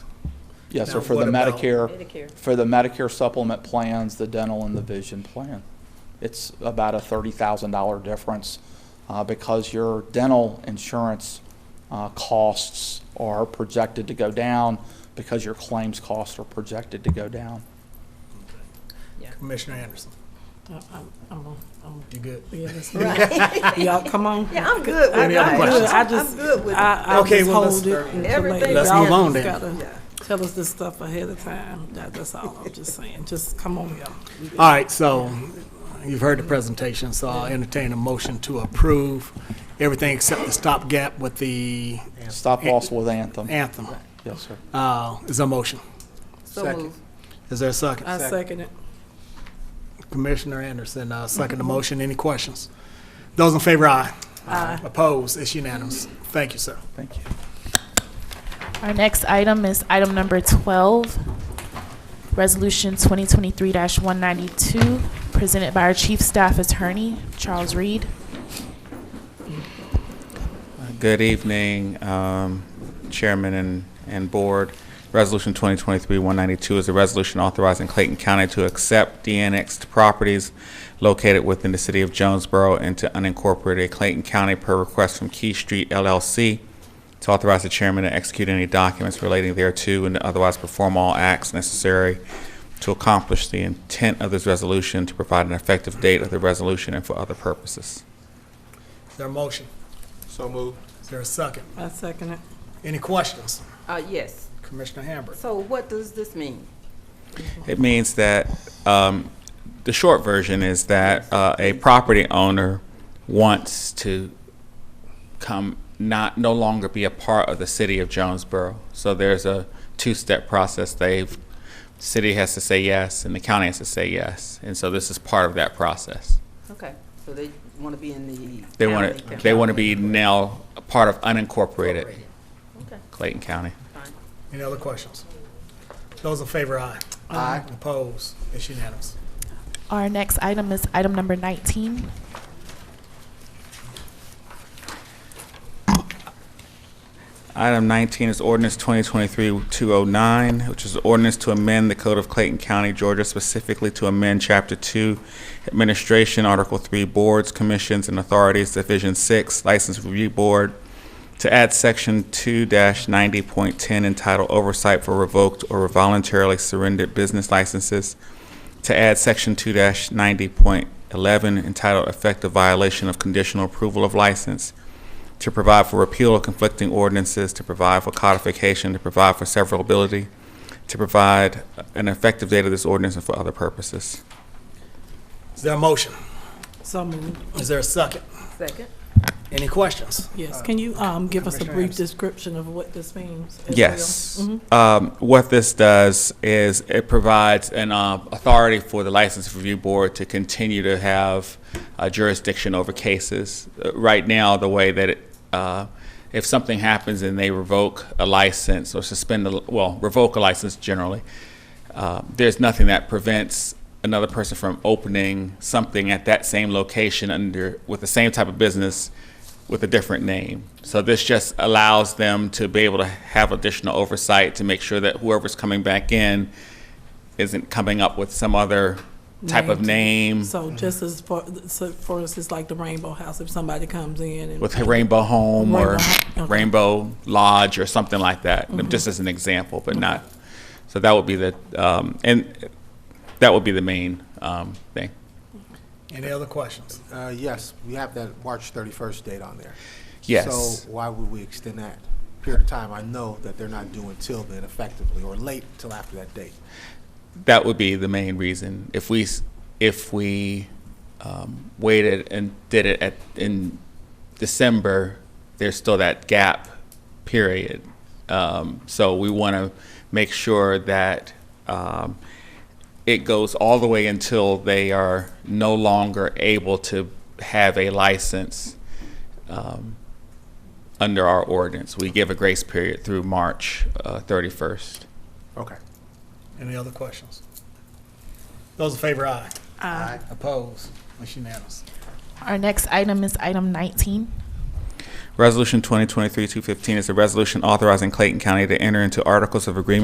Yes, Now, sir, for the what about- Medicare, Medicare. for the Medicare supplement plans, the dental and the vision plan. It's about a thirty thousand dollar difference, uh, because your dental insurance, uh, costs are projected to go down because your claims costs are projected to go down. Commissioner Anderson, I'm, I'm, I'm you good? realistic. Y'all, come on. Yeah, I'm good. Any I'm other good. questions? I I'm just, good with it. I, I'll Okay, just well, let's- hold it. until later. Everything Let's Y'all move on just then. gotta Yeah. Tell us this stuff ahead of time. That, that's all I'm just saying. Just come on, y'all. All right, so you've heard the presentation, so I'll entertain a motion to approve everything except the stopgap with the Stop loss with Anthem. anthem. Yes, sir. Uh, Is there a motion? So Second. moved. Is there a second? I second it. Commissioner Anderson, uh, second the motion. Any questions? Those in favor, aye. Aye. Opposed? It's unanimous. Thank you, sir. Thank you. Our next item is item number 12, Resolution 2023-192, presented by our Chief Staff Attorney, Charles Reed. Good evening, um, Chairman and, and Board. Resolution 2023-192 is a resolution authorizing Clayton County to accept de-annexed properties located within the city of Jonesboro into unincorporated Clayton County per request from Key Street LLC to authorize the chairman to execute any documents relating thereto and to otherwise perform all acts necessary to accomplish the intent of this resolution, to provide an effective date of the resolution and for other purposes. Is there a motion? So moved. Is there a second? I second it. Any questions? Uh, yes. Commissioner Hamburg? So what does this mean? It means that, um, the short version is that, uh, a property owner wants to come, not, no longer be a part of the city of Jonesboro. So there's a two-step process. They've, city has to say yes, and the county has to say yes. And so this is part of that process. Okay, so they want to be in the. They want county to, they want to be council. now a part of unincorporated Okay, Clayton County. fine. Any other questions? Those in favor, aye. Aye. Opposed? It's unanimous. Our next item is item number 19, Item 19 is ordinance 2023-209, which is ordinance to amend the Code of Clayton County, Georgia, specifically to amend Chapter 2, Administration, Article 3, Boards, Commissions, and Authorities, Division 6, License Review Board, to add Section 2-90.10 entitled Oversight for Revoked or Voluntarily Surrendered Business Licenses, to add Section 2-90.11 entitled Effective Violation of Conditional Approval of License, to provide for repeal of conflicting ordinances, to provide for codification, to provide for severability, to provide an effective date of this ordinance and for other purposes. Is there a motion? So moved. Is there a second? Second, Any questions? Uh, Yes. Can you, um, give us a Commissioner brief Anderson. description of what this means? as well? Yes. Mhm. Um, What this does is it provides an uh, authority for the License Review Board to continue to have uh, jurisdiction over cases. Uh, Right now, the way that, it, uh, if something happens and they revoke a license or suspend, the well, revoke a license generally, uh, there's nothing that prevents another person from opening something at that same location under, with the same type of business with a different name. So this just allows them to be able to have additional oversight to make sure that whoever's coming back in isn't coming up with some other type of name So just as far, so for us, it's like the Rainbow House, if somebody comes in and. with Rainbow Home or Rainbow, okay. Mm-hmm. Rainbow Lodge or something like that, just as an example, but not, so that would be the, um, and that would be the main um, thing. Any other questions? Uh, yes, we have that March thirty-first date on there. Yes. So why would we extend that period of time? I know that they're not due until then effectively, or late till after that date. That would be the main reason. If we, s- if we um, waited and did it at, in December, there's still that gap period. Um, So we want to make sure that um, it goes all the way until they are no longer able to have a license um, under our ordinance. We give a grace period through March uh, 31st. Okay. Any other questions? Those in favor, aye. Aye. Opposed? It's unanimous. Our next item is item 19. Resolution 2023-215 is a resolution authorizing Clayton County to enter into articles of agreement